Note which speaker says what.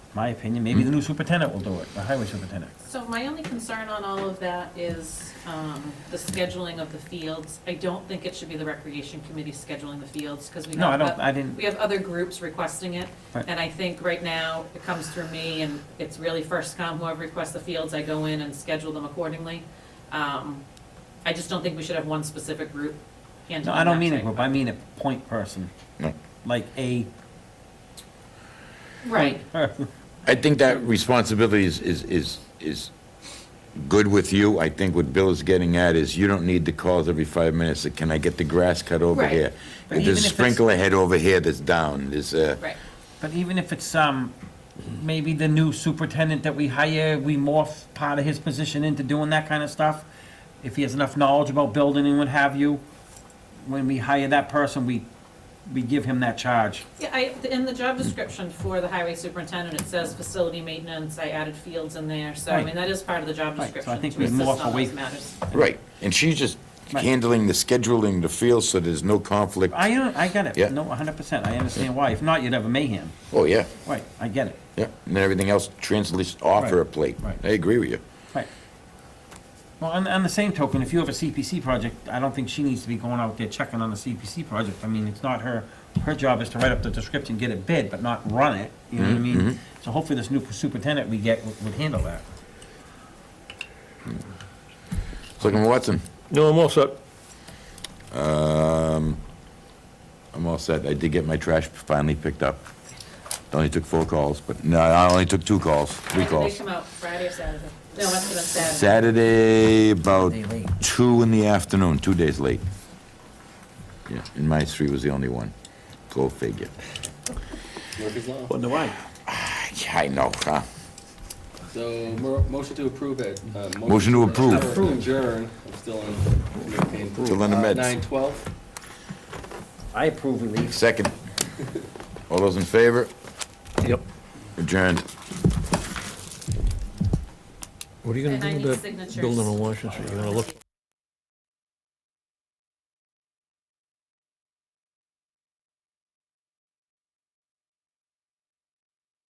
Speaker 1: my opinion, maybe the new superintendent will do it, the highway superintendent.
Speaker 2: So my only concern on all of that is um, the scheduling of the fields. I don't think it should be the recreation committee scheduling the fields because we have.
Speaker 1: No, I don't,
Speaker 2: oth-
Speaker 1: I didn't,
Speaker 2: We have other groups requesting it.
Speaker 1: Right.
Speaker 2: And I think right now it comes through me and it's really first come, whoever requests the fields, I go in and schedule them accordingly. Um, I just don't think we should have one specific group
Speaker 1: no,
Speaker 2: handling
Speaker 1: I don't
Speaker 2: that
Speaker 1: mean a
Speaker 2: type
Speaker 1: group,
Speaker 2: of-
Speaker 1: I mean a point person,
Speaker 3: No.
Speaker 1: like a,
Speaker 2: Right,
Speaker 3: I think that responsibility is, is, is, is good with you. I think what Bill is getting at is you don't need the calls every five minutes, that, can I get the grass cut over
Speaker 2: Right.
Speaker 3: here?
Speaker 1: But
Speaker 3: And There's
Speaker 1: even
Speaker 3: a
Speaker 1: if it's-
Speaker 3: sprinkler head over here that's down, there's a,
Speaker 2: right.
Speaker 1: but even if it's, um, maybe the new superintendent that we hire, we morph part of his position into doing that kind of stuff. If he has enough knowledge about building and what have you, when we hire that person, we, we give him that charge.
Speaker 2: Yeah, I, in the job description for the highway superintendent, it says facility maintenance, I added fields in there, so I
Speaker 1: Right.
Speaker 2: mean, that is part of the
Speaker 1: Right,
Speaker 2: job
Speaker 1: so I
Speaker 2: description
Speaker 1: think
Speaker 2: to
Speaker 1: we
Speaker 2: assist
Speaker 1: morph
Speaker 2: on
Speaker 1: away-
Speaker 2: those matters.
Speaker 3: right. And she's just
Speaker 1: Right.
Speaker 3: handling the scheduling, the field, so there's no conflict.
Speaker 1: I, don't- I get
Speaker 3: Yeah.
Speaker 1: it, no, hundred percent, I understand why, if not, you'd have a mayhem,
Speaker 3: Oh, yeah,
Speaker 1: right, I get it,
Speaker 3: yeah. And then everything else translates off her
Speaker 1: Right,
Speaker 3: plate.
Speaker 1: right.
Speaker 3: I agree with you.
Speaker 1: right. Well, on, on the same token, if you have a CPC project, I don't think she needs to be going out there checking on the CPC project, I mean, it's not her, her job is to write up the description, get it bid, but not run it, you know what I
Speaker 4: Mm-hmm,
Speaker 1: mean? So hopefully this new superintendent we get would would handle that.
Speaker 3: Selectman Watson?
Speaker 4: No, I'm all set.
Speaker 3: Um, I'm all set. I did get my trash finally picked up. It only took four calls, but, no, I only took two calls, three
Speaker 2: When do they
Speaker 3: calls.
Speaker 2: come out, Friday or Saturday? No, it must have been Saturday.
Speaker 3: Saturday, about
Speaker 1: Day late.
Speaker 3: two in the afternoon, two days late. Yeah, and my three was the only one. Go figure.
Speaker 5: Murphy's Law.
Speaker 4: Wonder why?
Speaker 3: Yeah, I know, huh?
Speaker 5: So, mo- motion to approve it. Uh,
Speaker 3: Motion to approve.
Speaker 5: Approve. Adjourn, I'm still in, campaign.
Speaker 3: Still in the meds.
Speaker 5: Nine twelve.
Speaker 1: I approve relief.
Speaker 3: Second. All those in favor?
Speaker 4: Yep.
Speaker 3: Adjourned.
Speaker 4: What are you gonna
Speaker 2: And I
Speaker 4: do
Speaker 2: need
Speaker 4: with that
Speaker 2: signatures.
Speaker 4: building on Washington Street? You gonna look,